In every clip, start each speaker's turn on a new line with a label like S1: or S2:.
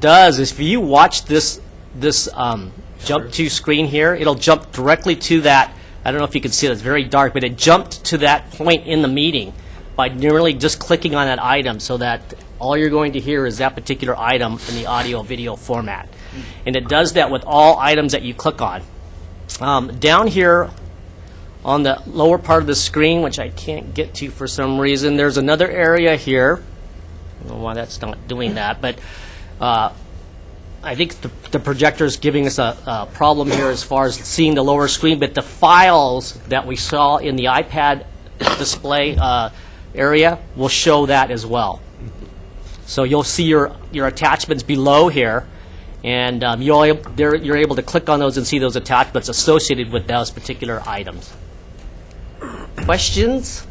S1: does is if you watch this this um, jump to screen here, it'll jump directly to that. I don't know if you can see it; it's very dark, but it jumped to that point in the meeting by merely just clicking on that item, so that all you're going to hear is that particular item in the audio video format, and it does that with all items that you click on. Um, down here on the lower part of the screen, which I can't get to for some reason, there's another area here. I don't know why that's not doing that, but uh, I think the, the projector is giving us a, a problem here as far as seeing the lower screen, but the files that we saw in the iPad display uh, area will show that as well. So you'll see your, your attachments below here, and um, you'll, ab- there- you're able to click on those and see those attachments associated with those particular items. Questions?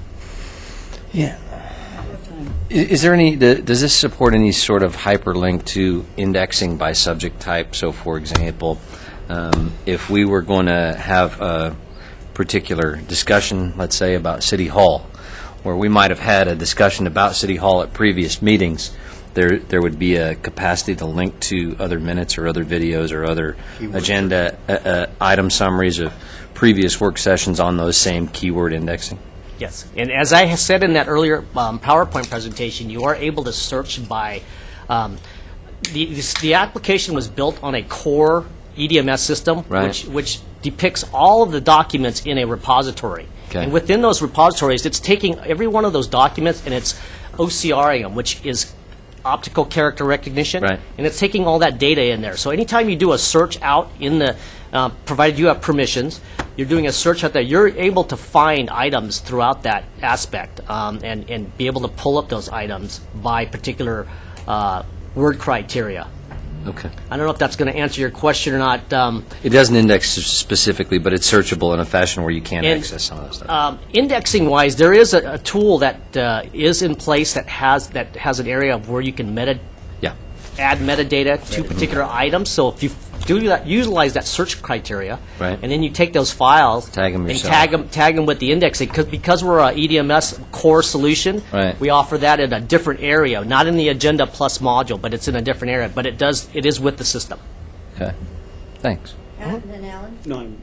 S2: Yeah. I- Is there any, th- does this support any sort of hyperlink to indexing by subject type? So for example, um, if we were going to have a particular discussion, let's say about City Hall, where we might have had a discussion about City Hall at previous meetings, there, there would be a capacity to link to other minutes or other videos or other agenda, uh, uh, item summaries of previous work sessions on those same keyword indexing?
S1: Yes, and as I said in that earlier um, PowerPoint presentation, you are able to search by, um, the this- the application was built on a core E EDMS system,
S2: Right.
S1: which which depicts all of the documents in a repository.
S2: Okay.
S1: And within those repositories, it's taking every one of those documents and it's OCRing them, which is optical character recognition.
S2: Right.
S1: And it's taking all that data in there. So anytime you do a search out in the, uh, provided you have permissions, you're doing a search out there, you're able to find items throughout that aspect um, and, and be able to pull up those items by particular uh, word criteria.
S2: Okay.
S1: I don't know if that's going to answer your question or not. Um,
S2: It doesn't index specifically, but it's searchable in a fashion where you can
S1: And,
S2: access some of that stuff.
S1: um, indexing wise, there is a, a tool that uh, is in place that has that has an area of where you can meta
S2: Yeah.
S1: add metadata to particular items. So if you do that, utilize that search criteria,
S2: Right.
S1: and then you take those files,
S2: Tag 'em
S1: and
S2: yourself.
S1: tag them, tag 'em with the indexing. Because because we're a E EDMS core solution,
S2: Right.
S1: we offer that in a different area, not in the Agenda Plus module, but it's in a different area. But it does it is with the system.
S2: Okay. Thanks.
S3: Pat and then Alan?
S4: No, I'm-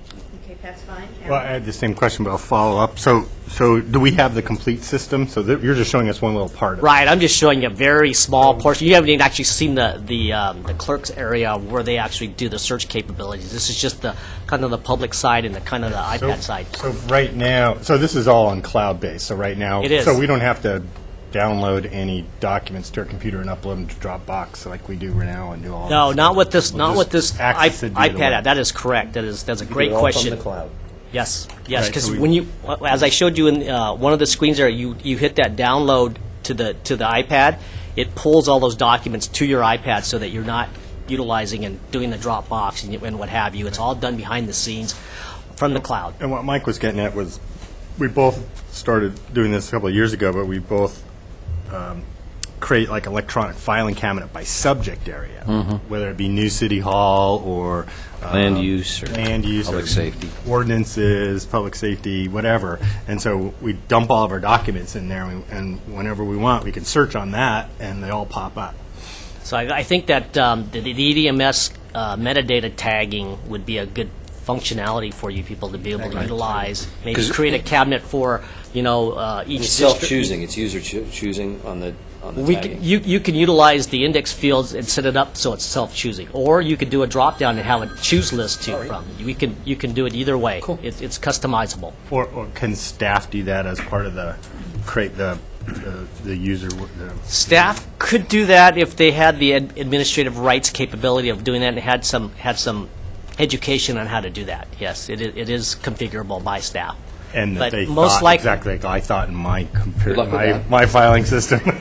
S3: Okay, Pat's fine.
S5: Well, I
S3: Alan?
S5: had the same question, but I'll follow up. So, so do we have the complete system? So that- you're just showing us one little part of it.
S1: Right, I'm just showing you a very small portion. You haven't even actually seen the the, um, the clerk's area where they actually do the search capabilities. This is just the kind of the public side and the kind of the
S5: So-
S1: iPad side.
S5: So right now, so this is all on cloud-based, so right now.
S1: It is.
S5: So we don't have to download any documents to our computer and upload them to Dropbox like we do right now and do all.
S1: No,
S5: this.
S1: not with this.
S5: We'll
S1: Not
S5: just
S1: with this i-
S5: access it via the
S1: iPad. app.
S5: web.
S1: That is correct. That is that's a great
S5: Do it all
S1: question.
S5: From the cloud.
S1: Yes, yes.
S5: Right,
S1: Because
S5: so we-
S1: when you, as I showed you in uh, one of the screens there, you you hit that download to the to the iPad. It pulls all those documents to your iPad so that you're not utilizing and doing the Dropbox and, and what have you. It's all done behind the scenes from the cloud.
S5: And what Mike was getting at was, we both started doing this a couple of years ago, but we both um, create like electronic filing cabinet by subject area, whether it be new city hall or uh,
S2: Mm-hmm. Land use or
S5: land use,
S2: public
S5: or
S2: safety.
S5: ordinances, public safety, whatever. And so we dump all of our documents in there, and, we, and whenever we want, we can search on that, and they all pop up.
S1: So I, I think that um, the, the EDMS uh, metadata tagging would be a good functionality for you people to be able to utilize. Maybe
S2: 'Cause-
S1: create a cabinet for you know uh, each
S2: It's
S1: district.
S2: self-choosing. It's user choo- choosing on the on the
S1: We
S2: tagging.
S1: can, you, you can utilize the index fields and set it up so it's self-choosing, or you could do a drop-down and have a choose list to from. We can you can do it either way. Cool. It's, it's customizable.
S5: Or, or can staff do that as part of the create the the, the user? w- The,
S1: Staff could do that if they had the ad- administrative rights capability of doing that and had some had some education on how to do that. Yes, it, i- it is configurable by staff.
S5: And
S1: But
S5: that they
S1: most
S5: thought
S1: like-
S5: exactly like I thought in my
S2: Good
S5: computer,
S2: luck with
S5: my,
S2: that.
S5: my filing system.
S1: well,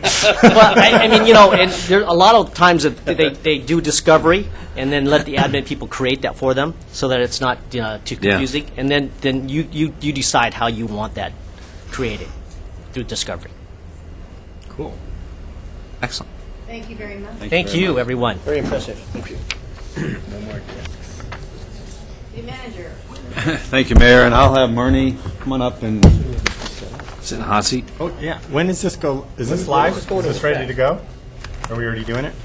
S1: I, I mean, you know, and there, a lot of times that they, they do discovery and then let the admin people create that for them so that it's not you know, too
S2: Yeah.
S1: confusing. And then, then you, you, you decide how you want that created through discovery.
S5: cool.
S2: Excellent.
S3: Thank you very much.
S1: Thank you, everyone.
S5: Very impressive. Thank you.
S3: The manager.
S6: Thank you, Mayor, and I'll have Murney come on up and
S2: Sit in the hot seat.
S5: Oh, yeah. When is this go, is this live? Is this ready to go? Are we already doing it?